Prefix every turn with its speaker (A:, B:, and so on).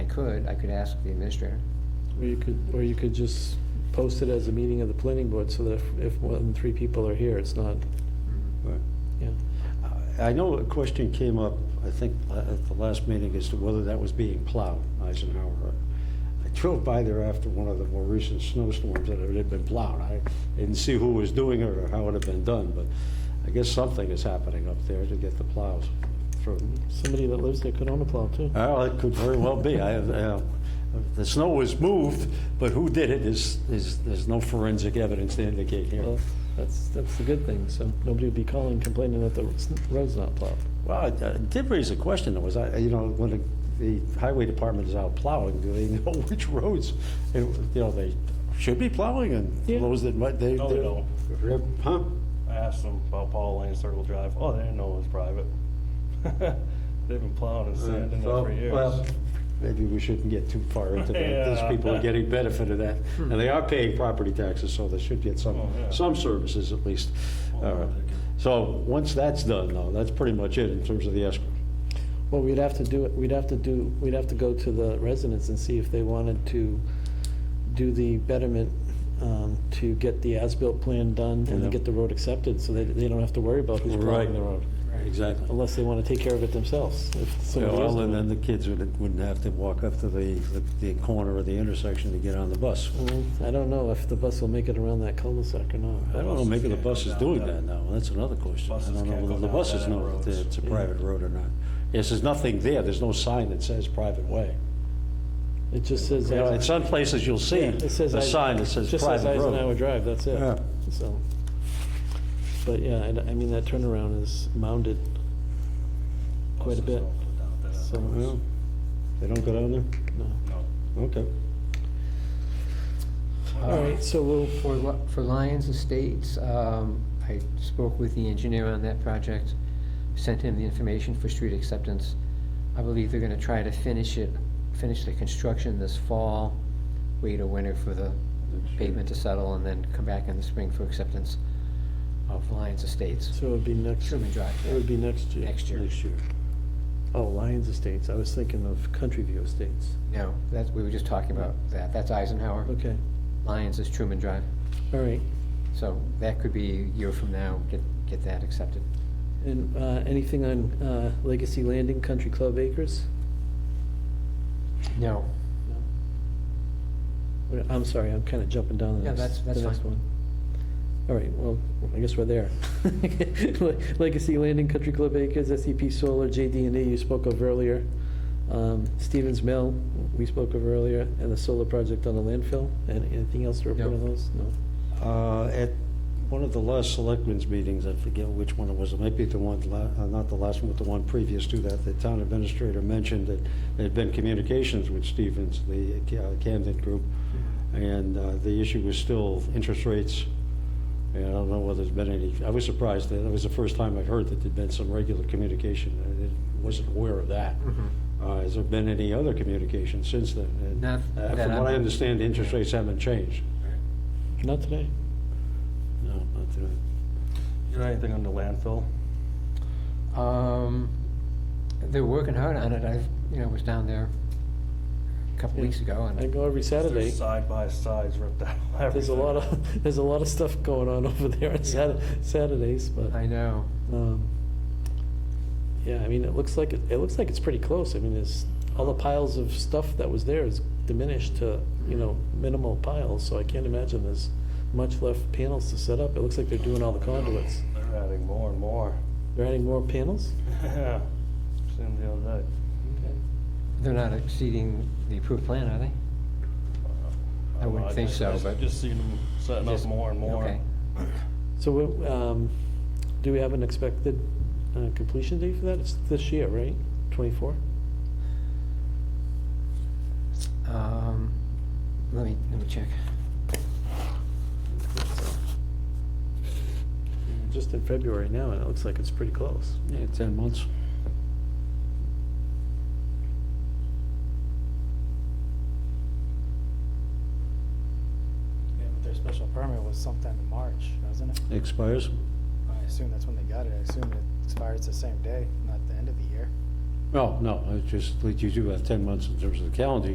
A: could, I could ask the administrator.
B: Or you could, or you could just post it as a meeting of the planning board so that if- if more than three people are here, it's not,
C: Right.
B: yeah.
C: I I know a question came up, I think, la- at the last meeting, as to whether that was being plowed, Eisenhower. I drove by there after one of the more recent snowstorms that it had been plowed. I didn't see who was doing it or how it had been done, but I guess something is happening up there to get the plows through.
B: Somebody that lives there could own a plow too.
C: Well, it could very well be. I, uh, the snow was moved, but who did it is, is, there's no forensic evidence to indicate here.
B: Well, that's, that's the good thing, so nobody would be calling complaining that the s- road's not plowed.
C: Well, it uh, did raise a question, though, was, I- you know, when the the highway department is out plowing, do they know which roads, you know, you know, they should be plowing, and
B: Yeah.
C: those that might, they...
D: No, they don't.
C: Rip- Huh?
D: I asked them about Paul Lane Circle Drive. Oh, they didn't know it was private. They've been plowing
A: Uh,
D: and sanding it
C: So,
D: for years.
C: well, Maybe we shouldn't get too far into that. These
D: Yeah. Hmm.
C: people are getting benefit of that, and they are paying property taxes, so they should get some,
D: Oh, yeah. Oh,
C: some services at least. All right. So, once that's done, though, that's pretty much it in terms of the escrow.
B: Well, we'd have to do it, we'd have to do, we'd have to go to the residents and see if they wanted to do the betterment um, to get the as-built plan done and
C: Yeah.
B: to get the road accepted, so they, they don't have to worry about who's
C: Right.
B: plowing the road.
C: Exactly.
B: Unless they want to take care of it themselves. if
C: Yeah,
B: somebody else-
C: Well, and then the kids wouldn't wouldn't have to walk up to the, the corner of the intersection to get on the bus.
B: Well, I don't know if the bus will make it around that cul-de-sac or
C: I
B: not.
C: don't know, maybe the bus is doing that now, that's another question. I
D: Buses
C: don't know
D: can't go
C: whether the
D: down
C: buses
D: bad
C: know if
D: roads.
C: it's a private road or not. Yes, there's nothing there, there's no sign that says private way.
B: It just says,
C: You know, in
B: it
C: some places you'll see
B: says.
C: a sign that says
B: Just says
C: private
B: Eisenhower
C: road.
B: Drive, that's
C: Yeah.
B: it, so. But yeah, I, I mean, that turnaround is mounded quite a bit,
D: Buses don't go down that
B: so,
C: Well, They don't go down there?
B: no.
D: road.
C: Okay.
B: All right, so we'll,
A: Um, For, Li- for Lions Estates, um, I spoke with the engineer on that project, sent him the information for street acceptance. I believe they're gonna try to finish it, finish the construction this fall, wait a winter for the pavement to settle, and then come back in the spring for acceptance of Lions Estates,
B: so it would be next, it
A: Sherman Drive,
B: would be next year.
A: next year.
C: Next year.
B: Oh, Lions Estates, I was thinking of Country View Estates.
A: No, that's, we were just talking about that, that's Eisenhower,
B: Okay,
A: Lions is Truman Drive,
B: all right.
A: so that could be a year from now, get, get that accepted.
B: And uh, anything on uh, Legacy Landing Country Club Acres?
A: No,
B: Wait, I'm sorry, I'm kind of jumping down the
A: Yeah,
B: next,
A: that's- that's
B: the next
A: fine.
B: one. All right, well, I guess we're there. Legacy Landing Country Club Acres, SEP Solar, jd and E you spoke of earlier. Um, Stevens Mill, we spoke of earlier, and the solar project on the landfill. And anything else to report
A: No.
B: on those? No?
C: Uh, At one of the last selectmen's meetings, I forget which one it was, it might be the one, la- uh, not the last one, but the one previous to that, the town administrator mentioned that there'd been communications with Stevens, the uh, Camden group, and uh, the issue was still interest rates. And I don't know whether there's been any, I was surprised, that it was the first time I heard that there'd been some regular communication. I wasn't aware of that.
B: Mm-hmm.
C: Uh, Has there been any other communication since then? And,
A: Not that
C: uh, From what I
A: I'm-
C: understand, the interest rates haven't changed.
B: Not today.
C: No, not today.
D: You know anything on the landfill?
A: Um, they're working hard on it. I've, you know, was down there a couple
B: Yeah.
A: weeks ago,
B: I
A: and
B: go every
D: There's
B: Saturday.
D: Side by sides ripped out.
B: There's a
D: everything.
B: lot of, there's a lot of stuff going on over there on Sat- Saturdays, but.
A: I know.
B: Um, Yeah, I mean, it looks like, it it looks like it's pretty close. I mean, there's, all the piles of stuff that was there is diminished to, you know, minimal piles, so I can't imagine there's much left panels to set up. It looks like they're doing all the conduits.
D: They're adding more and more.
B: They're adding more panels?
D: Yeah, seen the other day.
A: They're not exceeding the approved plan, are they? I wouldn't
D: Uh,
A: think so,
D: just-
A: but-
D: Just seen them setting up
A: Just-
D: more and more.
A: Okay.
B: So, we- um, do we have an expected uh, completion date for that? It's this year, right? Twenty-four?
A: Um, let me, let me check.
B: Just in February now, and it looks like it's pretty close.
C: Yeah, 10 months.
E: Yeah, but their special permit was sometime in March, wasn't it?
C: Expires?
E: I assume that's when they got it. I assume it expires the same day, not the end of the year.
C: No, no, it's just, like you do have 10 months in terms of the calendar